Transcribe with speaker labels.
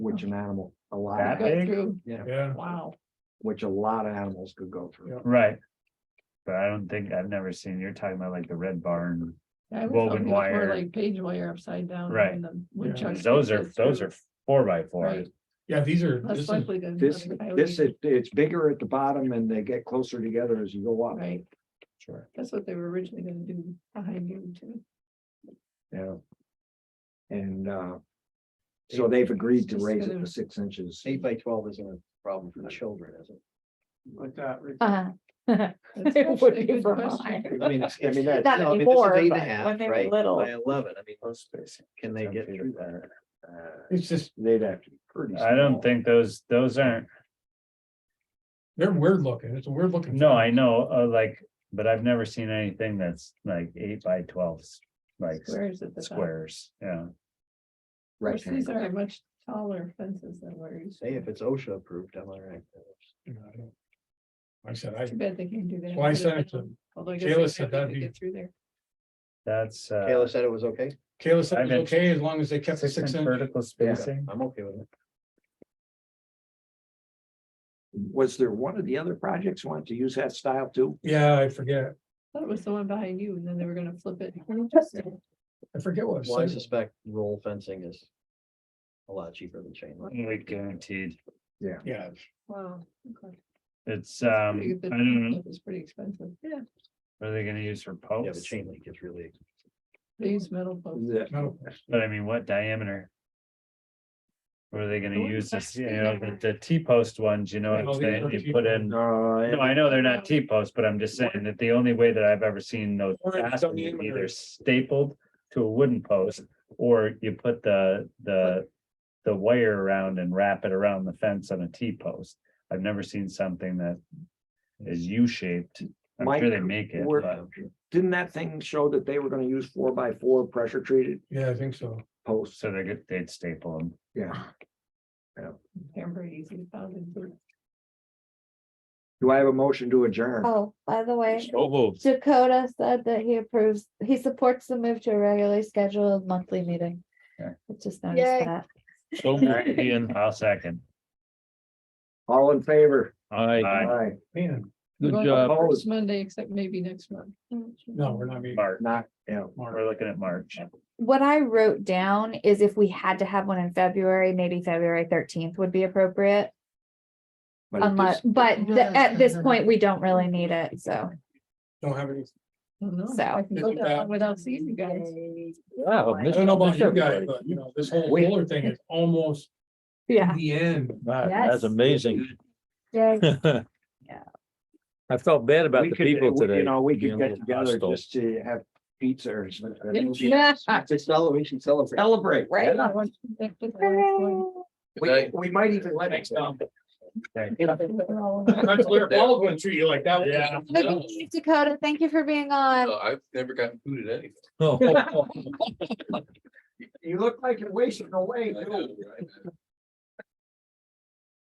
Speaker 1: which an animal, a lot,
Speaker 2: That
Speaker 1: of-
Speaker 2: big?
Speaker 1: yeah,
Speaker 3: Yeah.
Speaker 2: Wow.
Speaker 1: which a lot of animals could go through.
Speaker 3: Yeah.
Speaker 4: Right. But I don't think, I've never seen, you're talking about like the red barn,
Speaker 2: I was
Speaker 4: Woven
Speaker 2: hoping for
Speaker 4: wire.
Speaker 2: Like page wire upside down.
Speaker 4: Right.
Speaker 2: and the woodchucks
Speaker 4: those
Speaker 2: would
Speaker 4: are,
Speaker 2: get
Speaker 4: those
Speaker 2: through.
Speaker 4: are four by fours.
Speaker 2: Right.
Speaker 3: Yeah, these are,
Speaker 2: Less
Speaker 3: this is,
Speaker 2: likely than.
Speaker 1: This,
Speaker 2: the highway.
Speaker 1: this, is- it's bigger at the bottom and they get closer together as you go up.
Speaker 2: Right,
Speaker 4: Sure.
Speaker 2: that's what they were originally gonna do behind you too.
Speaker 1: Yeah. And, uh, so they've agreed to raise it to six inches.
Speaker 5: Eight by twelve isn't a problem for children, is it?
Speaker 3: like that, right?
Speaker 6: Uh,
Speaker 2: That's
Speaker 6: It would
Speaker 2: actually a
Speaker 6: be
Speaker 2: good
Speaker 6: for
Speaker 2: question.
Speaker 6: mine.
Speaker 5: I mean, it's- I mean, that.
Speaker 6: Not
Speaker 5: no, I mean, this is
Speaker 6: anymore,
Speaker 5: eight and a
Speaker 6: but
Speaker 5: half,
Speaker 6: when they were
Speaker 5: right,
Speaker 6: little.
Speaker 5: By eleven, I mean,
Speaker 4: Those spaces.
Speaker 5: can they
Speaker 4: Ten
Speaker 5: get
Speaker 4: feet
Speaker 5: through that?
Speaker 4: apart. Uh,
Speaker 3: It's just,
Speaker 1: They'd have to be pretty.
Speaker 4: I
Speaker 1: small.
Speaker 4: don't think those, those aren't,
Speaker 3: they're weird looking. It's a weird looking.
Speaker 4: no, I know, uh, like, but I've never seen anything that's like eight by twelves, like
Speaker 2: Squares at the top.
Speaker 4: squares, yeah.
Speaker 2: Of course, These
Speaker 1: Rectangle.
Speaker 2: are much taller fences than where you.
Speaker 5: Hey, if it's OSHA approved, I'm all right.
Speaker 4: Uh,
Speaker 3: You know, I don't- Like I said, I,
Speaker 2: Too bad they can't do that.
Speaker 3: Well, I
Speaker 2: Put it
Speaker 3: sent it to
Speaker 2: down. Although I guess
Speaker 3: Kayla
Speaker 2: they
Speaker 3: said
Speaker 2: probably
Speaker 3: that'd
Speaker 2: could
Speaker 3: be-
Speaker 2: Get through there.
Speaker 4: That's, uh,
Speaker 5: Kayla said it was okay.
Speaker 3: Kayla said
Speaker 4: I've
Speaker 3: it
Speaker 4: been-
Speaker 3: was okay as long as they kept the
Speaker 4: six
Speaker 3: six
Speaker 4: inch
Speaker 3: inch.
Speaker 4: vertical
Speaker 1: Yeah.
Speaker 4: spacing.
Speaker 5: I'm okay with it.
Speaker 1: Was there one of the other projects wanted to use that style too?
Speaker 3: Yeah, I forget.
Speaker 2: Thought it was the one behind you and then they were gonna flip it.
Speaker 3: I forget what. it
Speaker 5: Well, I
Speaker 3: said.
Speaker 5: suspect roll fencing is a lot cheaper than chain link.
Speaker 4: We guaranteed,
Speaker 3: Yeah,
Speaker 2: Wow. okay.
Speaker 4: it's,
Speaker 2: That's
Speaker 4: um,
Speaker 2: pretty
Speaker 4: I
Speaker 2: good, but
Speaker 4: don't know,
Speaker 2: flip is pretty expensive. Yeah.
Speaker 4: what are they gonna use for
Speaker 5: Yeah, the
Speaker 4: posts?
Speaker 5: chain link is really,
Speaker 2: They use metal posts.
Speaker 1: The-
Speaker 3: no,
Speaker 4: But I mean, what diameter? Were they
Speaker 2: The
Speaker 4: gonna
Speaker 2: ones
Speaker 4: use
Speaker 2: that
Speaker 4: this,
Speaker 2: we
Speaker 4: you know,
Speaker 2: never-
Speaker 4: the, the T-post ones, you know,
Speaker 3: Yeah,
Speaker 4: if
Speaker 3: these
Speaker 4: they,
Speaker 3: are
Speaker 4: you
Speaker 3: T-post.
Speaker 4: put in.
Speaker 1: No,
Speaker 4: No,
Speaker 1: it-
Speaker 4: I know they're not T-posts, but I'm just saying that the only way that I've ever seen those
Speaker 3: Or it's
Speaker 4: fastened is
Speaker 3: diameter.
Speaker 4: either stapled to a wooden post. Or you put the, the, the wire around and wrap it around the fence on a T-post. I've never seen something that is U-shaped. I'm
Speaker 1: Mike,
Speaker 4: sure they make it,
Speaker 1: we're-
Speaker 4: but
Speaker 1: didn't that thing show that they were gonna use four by four pressure treated
Speaker 3: yeah, I think so.
Speaker 1: posts?
Speaker 4: so they could, they'd staple them.
Speaker 1: Yeah.
Speaker 2: Hamburg easily found in. Bur-
Speaker 1: Do I have a motion to adjourn?
Speaker 6: Oh, by the way, Dakota said that he approves, he supports the move to a regularly scheduled monthly meeting.
Speaker 4: Okay.
Speaker 6: I just noticed
Speaker 7: Yay.
Speaker 6: that.
Speaker 4: So moved, Ian. I'll second.
Speaker 1: All in favor?
Speaker 4: Aye.
Speaker 1: Aye.
Speaker 3: Man,
Speaker 2: We're going
Speaker 1: job.
Speaker 2: First Monday, except maybe next month.
Speaker 3: no, we're not meeting.
Speaker 4: March,
Speaker 1: Not, yeah.
Speaker 3: tomorrow.
Speaker 4: we're looking at March.
Speaker 6: What I wrote down is if we had to have one in February, maybe February thirteenth would be appropriate.
Speaker 1: but at
Speaker 6: Unless,
Speaker 1: this-
Speaker 6: but th- at this
Speaker 2: Yeah.
Speaker 6: point, we don't really need it, so.
Speaker 3: Don't have any,
Speaker 2: I don't know.
Speaker 6: So-
Speaker 2: I can go
Speaker 3: Isn't that-
Speaker 2: down without seeing you guys.
Speaker 3: Oh, I don't know about you guys, but you know, this whole Kohler thing is almost
Speaker 6: Yeah.
Speaker 3: the end.
Speaker 6: That's
Speaker 8: amazing.
Speaker 6: Yeah.
Speaker 8: I felt bad about
Speaker 1: we
Speaker 8: the
Speaker 1: could-
Speaker 8: people
Speaker 1: we-
Speaker 8: today.
Speaker 1: You know, we could
Speaker 8: being a
Speaker 1: get
Speaker 8: little
Speaker 1: together
Speaker 8: hostile.
Speaker 1: just to have pizza or something.
Speaker 6: Yeah.
Speaker 5: it's celebration, celebration.
Speaker 1: Celebrate.
Speaker 6: Right.
Speaker 1: yeah.
Speaker 2: Right.
Speaker 6: Hooray.
Speaker 1: We, we might even let it go.
Speaker 3: That's where Baldwin treat you like that.
Speaker 4: Yeah.
Speaker 6: Dakota, thank you for being on.
Speaker 7: I've never gotten food at anything.
Speaker 8: Oh,
Speaker 1: You look like you're wasting away. too.